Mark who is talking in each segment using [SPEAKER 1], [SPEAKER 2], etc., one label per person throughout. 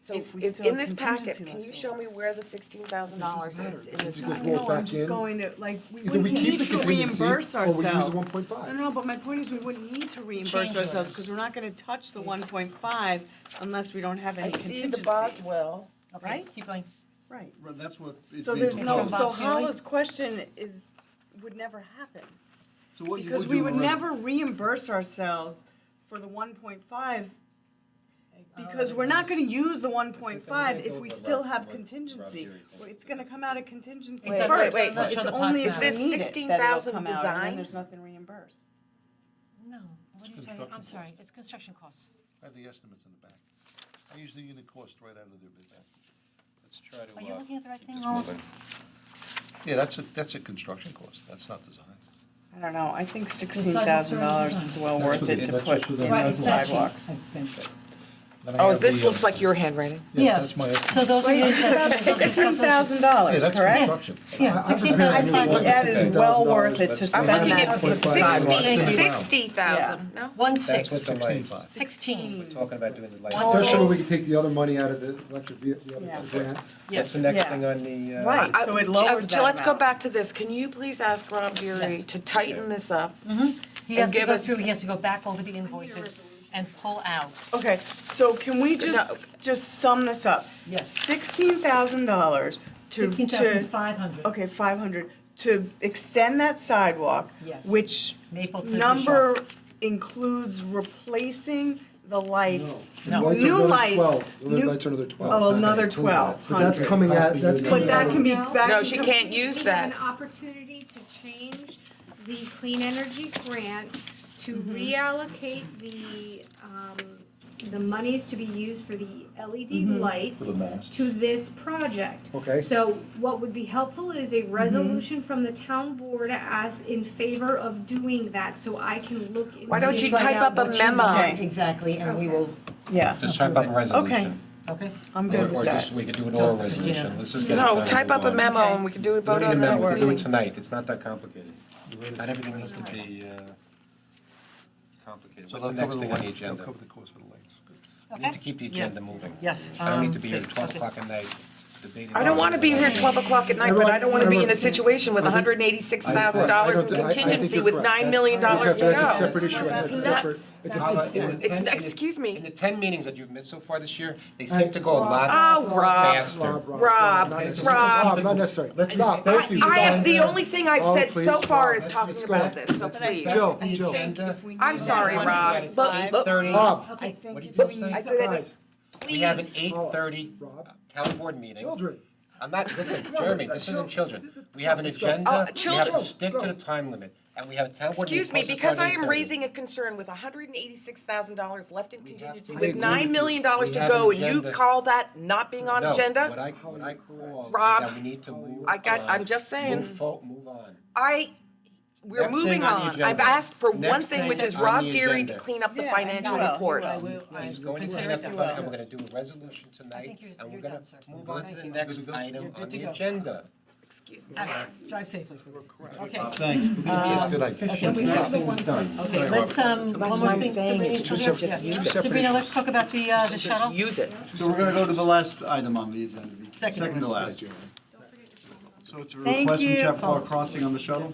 [SPEAKER 1] So
[SPEAKER 2] If we
[SPEAKER 1] if,
[SPEAKER 2] still
[SPEAKER 1] in
[SPEAKER 2] have
[SPEAKER 1] this packet,
[SPEAKER 2] contingency
[SPEAKER 1] can you
[SPEAKER 2] left
[SPEAKER 1] show
[SPEAKER 2] over.
[SPEAKER 1] me where the sixteen thousand dollars is in this
[SPEAKER 3] It just
[SPEAKER 1] packet?
[SPEAKER 3] rolls
[SPEAKER 2] No,
[SPEAKER 3] back
[SPEAKER 2] I'm just
[SPEAKER 3] in.
[SPEAKER 2] going to, like, we
[SPEAKER 3] Either we
[SPEAKER 2] wouldn't
[SPEAKER 3] keep
[SPEAKER 2] need
[SPEAKER 3] the
[SPEAKER 2] to
[SPEAKER 3] contingency,
[SPEAKER 2] reimburse
[SPEAKER 3] or we use the
[SPEAKER 2] ourselves.
[SPEAKER 3] 1.5.
[SPEAKER 2] No, no, but my point is, we wouldn't need to reimburse
[SPEAKER 4] Change
[SPEAKER 2] ourselves,
[SPEAKER 4] orders.
[SPEAKER 2] because we're not gonna touch the one point five unless we don't have
[SPEAKER 1] I
[SPEAKER 2] any
[SPEAKER 1] see the
[SPEAKER 2] contingency.
[SPEAKER 1] Boswell,
[SPEAKER 4] Okay,
[SPEAKER 2] Right?
[SPEAKER 4] Keep going.
[SPEAKER 2] Right.
[SPEAKER 5] Well, that's what it's
[SPEAKER 2] So
[SPEAKER 5] being
[SPEAKER 2] there's no,
[SPEAKER 4] From
[SPEAKER 5] proposed.
[SPEAKER 2] so
[SPEAKER 4] Bob Seeley?
[SPEAKER 2] Hala's question is, would never happen.
[SPEAKER 5] So what you
[SPEAKER 2] Because
[SPEAKER 5] would
[SPEAKER 2] we
[SPEAKER 5] do
[SPEAKER 2] would
[SPEAKER 5] is-
[SPEAKER 2] never reimburse ourselves for the one point five, because we're not gonna use the one point five if we still have contingency. Well, It's gonna come out of contingency
[SPEAKER 4] Wait,
[SPEAKER 1] wait,
[SPEAKER 2] first.
[SPEAKER 1] wait,
[SPEAKER 4] wait.
[SPEAKER 2] It's
[SPEAKER 4] Show the
[SPEAKER 2] only if
[SPEAKER 4] pots now.
[SPEAKER 2] we
[SPEAKER 4] Is
[SPEAKER 1] this
[SPEAKER 2] need it that it'll
[SPEAKER 1] 16,000
[SPEAKER 2] come out, and then
[SPEAKER 1] design?
[SPEAKER 2] there's nothing reimbursed.
[SPEAKER 4] No, what are you talking, I'm sorry, it's construction costs.
[SPEAKER 6] I have the estimates in the back. I use the unit cost right out of their bid. Let's try to.
[SPEAKER 4] Are you
[SPEAKER 6] uh,
[SPEAKER 4] looking at the right
[SPEAKER 6] keep
[SPEAKER 4] thing,
[SPEAKER 6] this
[SPEAKER 4] Roland?
[SPEAKER 6] moving. Yeah, that's a, that's a construction cost. That's not design.
[SPEAKER 2] I don't know, I think sixteen thousand dollars is well worth it to
[SPEAKER 3] That's
[SPEAKER 2] put
[SPEAKER 3] what-
[SPEAKER 2] in those
[SPEAKER 3] that's
[SPEAKER 4] what the- Right, exactly.
[SPEAKER 2] sidewalks.
[SPEAKER 6] Then I
[SPEAKER 1] oh,
[SPEAKER 6] have
[SPEAKER 1] this
[SPEAKER 6] the, uh,
[SPEAKER 1] looks like your handwriting.
[SPEAKER 4] Yeah.
[SPEAKER 6] Yes, that's my
[SPEAKER 4] So
[SPEAKER 6] estimate.
[SPEAKER 4] those are your assessments, those are
[SPEAKER 2] Sixteen thousand
[SPEAKER 6] Yeah,
[SPEAKER 2] dollars,
[SPEAKER 6] that's
[SPEAKER 2] correct?
[SPEAKER 6] construction.
[SPEAKER 3] I-
[SPEAKER 4] Yeah,
[SPEAKER 3] I- I
[SPEAKER 4] sixteen
[SPEAKER 3] think
[SPEAKER 4] thousand
[SPEAKER 3] it's
[SPEAKER 4] five
[SPEAKER 3] really
[SPEAKER 4] hundred.
[SPEAKER 2] That is well worth it to
[SPEAKER 3] $16,000,
[SPEAKER 2] spend
[SPEAKER 3] but
[SPEAKER 2] that.
[SPEAKER 1] I'm looking at
[SPEAKER 2] for
[SPEAKER 1] sixteen,
[SPEAKER 2] sidewalks.
[SPEAKER 1] sixty thousand, no?
[SPEAKER 4] One
[SPEAKER 7] That's what
[SPEAKER 4] six,
[SPEAKER 7] the
[SPEAKER 6] Sixteen
[SPEAKER 7] lights,
[SPEAKER 6] five.
[SPEAKER 4] sixteen.
[SPEAKER 7] talking about doing the
[SPEAKER 1] Oh,
[SPEAKER 7] lights.
[SPEAKER 3] Especially when we can take the other money out of the electric vehicle, the
[SPEAKER 2] Yeah.
[SPEAKER 3] other grant.
[SPEAKER 7] That's the
[SPEAKER 2] Yeah.
[SPEAKER 7] next thing on the, uh.
[SPEAKER 2] Right, so it lowers
[SPEAKER 1] Uh,
[SPEAKER 2] that
[SPEAKER 1] Let's go
[SPEAKER 2] amount.
[SPEAKER 1] back to this. Can you please ask Rob Geary
[SPEAKER 4] Yes.
[SPEAKER 1] to tighten this up?
[SPEAKER 4] He has
[SPEAKER 1] And
[SPEAKER 4] to
[SPEAKER 1] give
[SPEAKER 4] go
[SPEAKER 1] us-
[SPEAKER 4] through, he has to go back over the invoices and pull out.
[SPEAKER 2] Okay, so can we just,
[SPEAKER 1] No.
[SPEAKER 2] just sum this up?
[SPEAKER 4] Yes.
[SPEAKER 2] Sixteen thousand dollars to,
[SPEAKER 4] Sixteen
[SPEAKER 2] to,
[SPEAKER 4] thousand five hundred.
[SPEAKER 2] okay, five hundred, to extend that sidewalk.
[SPEAKER 4] Yes.
[SPEAKER 2] Which
[SPEAKER 4] Maple to
[SPEAKER 2] number
[SPEAKER 4] Bischoff.
[SPEAKER 2] includes replacing the lights?
[SPEAKER 4] No.
[SPEAKER 3] Lights are
[SPEAKER 2] New
[SPEAKER 3] another
[SPEAKER 2] lights,
[SPEAKER 3] 12. The
[SPEAKER 2] new-
[SPEAKER 3] Lights are another twelve.
[SPEAKER 2] Oh, another twelve
[SPEAKER 3] But that's
[SPEAKER 2] hundred.
[SPEAKER 3] coming out, that's.
[SPEAKER 2] But that can be back.
[SPEAKER 1] No, she can't use
[SPEAKER 8] We have
[SPEAKER 1] that.
[SPEAKER 8] An opportunity to change the clean energy grant to
[SPEAKER 2] Mm-hmm.
[SPEAKER 8] reallocate the, um, the monies to be used for the LED
[SPEAKER 2] Mm-hmm.
[SPEAKER 8] lights to this project.
[SPEAKER 3] Okay.
[SPEAKER 8] So what would be helpful is
[SPEAKER 2] Mm-hmm.
[SPEAKER 8] a resolution from the town board as in favor of doing that, so I can look into.
[SPEAKER 1] Why don't
[SPEAKER 4] Just
[SPEAKER 1] you
[SPEAKER 8] it.
[SPEAKER 4] write
[SPEAKER 1] type up
[SPEAKER 4] out
[SPEAKER 1] a
[SPEAKER 4] what you
[SPEAKER 1] memo.
[SPEAKER 4] want Exactly, and we will,
[SPEAKER 2] Yeah,
[SPEAKER 7] Just type up a
[SPEAKER 2] resolution.
[SPEAKER 7] resolution.
[SPEAKER 4] okay?
[SPEAKER 2] I'm
[SPEAKER 7] Or,
[SPEAKER 2] good with that.
[SPEAKER 7] just, we could do an oral
[SPEAKER 4] Christina.
[SPEAKER 7] resolution, let's
[SPEAKER 3] Mm-hmm.
[SPEAKER 7] just get it done.
[SPEAKER 1] No,
[SPEAKER 7] and
[SPEAKER 1] type
[SPEAKER 7] move
[SPEAKER 1] up a
[SPEAKER 7] on.
[SPEAKER 1] memo and we can do a
[SPEAKER 7] We
[SPEAKER 1] vote
[SPEAKER 7] don't need a
[SPEAKER 1] on
[SPEAKER 7] memo,
[SPEAKER 1] it.
[SPEAKER 7] we're
[SPEAKER 1] next
[SPEAKER 7] doing
[SPEAKER 1] meeting.
[SPEAKER 7] tonight, it's not that complicated. Not everything needs to be, uh, complicated.
[SPEAKER 6] So
[SPEAKER 7] What's the
[SPEAKER 6] they'll cover
[SPEAKER 7] next
[SPEAKER 6] the
[SPEAKER 7] thing on the
[SPEAKER 6] lights. They'll
[SPEAKER 7] agenda?
[SPEAKER 6] cover the cost for the lights. Good.
[SPEAKER 7] We need to keep the agenda moving.
[SPEAKER 4] Yes,
[SPEAKER 7] I don't
[SPEAKER 4] um,
[SPEAKER 7] need to be here at
[SPEAKER 4] please,
[SPEAKER 7] twelve
[SPEAKER 4] okay.
[SPEAKER 7] o'clock at night debating.
[SPEAKER 1] I don't want to be here at 12 o'clock at night, but I don't want to be in a situation with $186,000 in
[SPEAKER 3] I- I think
[SPEAKER 1] contingency
[SPEAKER 3] you're
[SPEAKER 1] with
[SPEAKER 3] correct.
[SPEAKER 1] $9 million to
[SPEAKER 3] Because that's a
[SPEAKER 1] go.
[SPEAKER 3] separate issue, that's a
[SPEAKER 1] Nuts.
[SPEAKER 3] separate, it's a
[SPEAKER 7] Paula,
[SPEAKER 3] big
[SPEAKER 7] in the
[SPEAKER 3] thing.
[SPEAKER 1] It's-
[SPEAKER 7] ten- in the-
[SPEAKER 1] excuse me.
[SPEAKER 7] In the ten meetings that you've missed so far this year, they seem to go a lot
[SPEAKER 1] Oh, Uh, Rob.
[SPEAKER 7] faster.
[SPEAKER 3] Rob, Rob,
[SPEAKER 1] Rob,
[SPEAKER 3] not necessary.
[SPEAKER 1] Rob.
[SPEAKER 3] Rob, not necessary.
[SPEAKER 7] Let's
[SPEAKER 3] Stop.
[SPEAKER 7] respect
[SPEAKER 3] Thank you.
[SPEAKER 1] I am, the
[SPEAKER 3] Stop.
[SPEAKER 1] only thing I've
[SPEAKER 3] Oh,
[SPEAKER 1] said so
[SPEAKER 3] please,
[SPEAKER 1] far
[SPEAKER 3] Rob,
[SPEAKER 1] is
[SPEAKER 3] let's
[SPEAKER 1] talking
[SPEAKER 3] go.
[SPEAKER 1] about this, so
[SPEAKER 7] Let's go.
[SPEAKER 1] please.
[SPEAKER 3] Jill,
[SPEAKER 2] I
[SPEAKER 3] Jill.
[SPEAKER 2] think if we
[SPEAKER 1] I'm
[SPEAKER 2] need
[SPEAKER 1] sorry,
[SPEAKER 2] that
[SPEAKER 1] Rob,
[SPEAKER 2] one
[SPEAKER 1] but-
[SPEAKER 2] five,
[SPEAKER 1] but-
[SPEAKER 3] Rob,
[SPEAKER 2] I think
[SPEAKER 7] What did
[SPEAKER 2] if
[SPEAKER 7] you
[SPEAKER 2] we
[SPEAKER 7] say?
[SPEAKER 2] need
[SPEAKER 7] I
[SPEAKER 1] said I
[SPEAKER 3] guys,
[SPEAKER 7] We have an
[SPEAKER 1] Oh, Please.
[SPEAKER 7] eight thirty
[SPEAKER 3] Rob.
[SPEAKER 7] town board meeting.
[SPEAKER 3] children.
[SPEAKER 7] I'm not, listen, Jeremy, this isn't children. We have an
[SPEAKER 1] Oh,
[SPEAKER 7] agenda, we have
[SPEAKER 1] children.
[SPEAKER 7] to stick to the time limit, and we have a town board meeting.
[SPEAKER 1] Excuse me,
[SPEAKER 7] supposed to
[SPEAKER 1] because I
[SPEAKER 7] start at
[SPEAKER 1] am
[SPEAKER 7] 8:30.
[SPEAKER 1] raising a concern with $186,000 left in contingency
[SPEAKER 7] I
[SPEAKER 1] with
[SPEAKER 3] agree
[SPEAKER 1] $9 million
[SPEAKER 7] with you.
[SPEAKER 1] to
[SPEAKER 7] We have
[SPEAKER 1] go,
[SPEAKER 7] an
[SPEAKER 1] and you
[SPEAKER 7] agenda.
[SPEAKER 1] call that not being on
[SPEAKER 7] No, What
[SPEAKER 1] agenda?
[SPEAKER 7] I, what I call is
[SPEAKER 1] Rob,
[SPEAKER 7] that we need to move
[SPEAKER 1] I got-
[SPEAKER 7] on.
[SPEAKER 1] I'm just saying.
[SPEAKER 7] Move fo- move on.
[SPEAKER 1] I, we're
[SPEAKER 7] Next thing
[SPEAKER 1] moving
[SPEAKER 7] on the
[SPEAKER 1] on.
[SPEAKER 7] agenda.
[SPEAKER 1] I've asked for one
[SPEAKER 7] Next
[SPEAKER 1] thing,
[SPEAKER 7] thing
[SPEAKER 1] which is
[SPEAKER 7] on
[SPEAKER 1] Rob
[SPEAKER 7] the
[SPEAKER 1] Geary to
[SPEAKER 7] agenda.
[SPEAKER 1] clean up the
[SPEAKER 2] Yeah, I
[SPEAKER 1] financial
[SPEAKER 2] will, I
[SPEAKER 1] reports.
[SPEAKER 4] I will, I
[SPEAKER 7] He's going to
[SPEAKER 4] consider
[SPEAKER 7] clean up the
[SPEAKER 4] that.
[SPEAKER 7] front, and we're gonna do a resolution tonight,
[SPEAKER 4] think you're-
[SPEAKER 7] and we're
[SPEAKER 4] you're
[SPEAKER 7] gonna
[SPEAKER 4] done, sir.
[SPEAKER 7] move on to
[SPEAKER 4] Thank
[SPEAKER 7] the
[SPEAKER 4] you.
[SPEAKER 7] next
[SPEAKER 6] You're good to go.
[SPEAKER 4] You're
[SPEAKER 7] item
[SPEAKER 4] good
[SPEAKER 7] on
[SPEAKER 4] to
[SPEAKER 7] the
[SPEAKER 4] go.
[SPEAKER 7] agenda.
[SPEAKER 1] Excuse me.
[SPEAKER 4] Ah, Drive safely, please. Okay,
[SPEAKER 5] Thanks.
[SPEAKER 2] Uh,
[SPEAKER 6] Yes, good idea.
[SPEAKER 4] can we have the one, okay, let's, um, one more
[SPEAKER 2] I'm
[SPEAKER 4] thing,
[SPEAKER 2] saying
[SPEAKER 4] Sabrina,
[SPEAKER 2] it's
[SPEAKER 4] still
[SPEAKER 2] two
[SPEAKER 4] here?
[SPEAKER 2] separate-
[SPEAKER 4] Yeah.
[SPEAKER 2] two
[SPEAKER 3] separate
[SPEAKER 4] Sabrina,
[SPEAKER 3] issues.
[SPEAKER 4] let's talk about the, uh, the shuttle.
[SPEAKER 1] Use it.
[SPEAKER 5] So we're gonna go to the last item on the agenda, the
[SPEAKER 4] Second
[SPEAKER 5] second to
[SPEAKER 4] one.
[SPEAKER 5] last. So it's a
[SPEAKER 2] Thank
[SPEAKER 5] request from
[SPEAKER 2] you.
[SPEAKER 5] Chapel Crossing on the shuttle?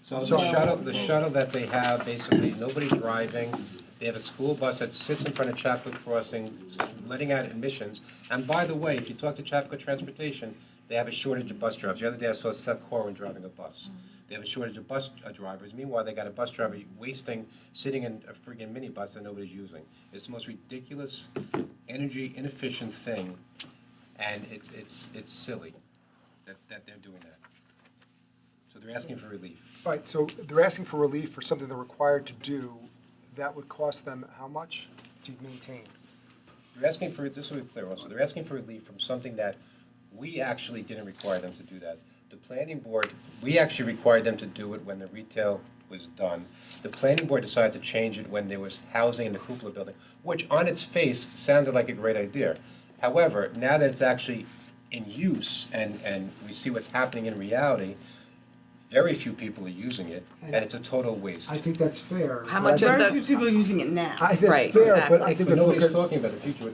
[SPEAKER 7] So the shuttle, the shuttle that they have, basically, nobody driving. They have a school bus that sits in front of Chapco Crossing, letting out admissions. And by the way, if you talk to Chapco Transportation, they have a shortage of bus drivers. The other day, I saw Seth Corwin driving a bus. They have a shortage of bus uh, drivers. Meanwhile, they got a bus driver wasting, sitting in a friggin' minibus that nobody's using. It's the most ridiculous, energy inefficient thing, and it's, it's, it's silly that, that they're doing that. So they're asking for relief.
[SPEAKER 9] Right, so they're asking for relief for something they're required to do, that would cost them how much to maintain?
[SPEAKER 7] They're asking for, this will be clear also, they're asking for relief from something that we actually didn't require them to do that. The planning board, we actually required them to do it when the retail was done. The planning board decided to change it when there was housing in the Kupla building, which on its face sounded like a great idea. However, now that it's actually in use and, and we see what's happening in reality, very few people are using it, and it's a total waste.
[SPEAKER 3] I think that's fair.
[SPEAKER 1] How much
[SPEAKER 3] I
[SPEAKER 1] of
[SPEAKER 3] think-
[SPEAKER 1] the-
[SPEAKER 2] Very few people are using it now.
[SPEAKER 3] I think
[SPEAKER 1] Right,
[SPEAKER 3] that's fair, but
[SPEAKER 1] exactly.
[SPEAKER 3] I think.
[SPEAKER 7] But
[SPEAKER 3] if you look
[SPEAKER 7] nobody's
[SPEAKER 3] at-
[SPEAKER 7] talking about the future, we're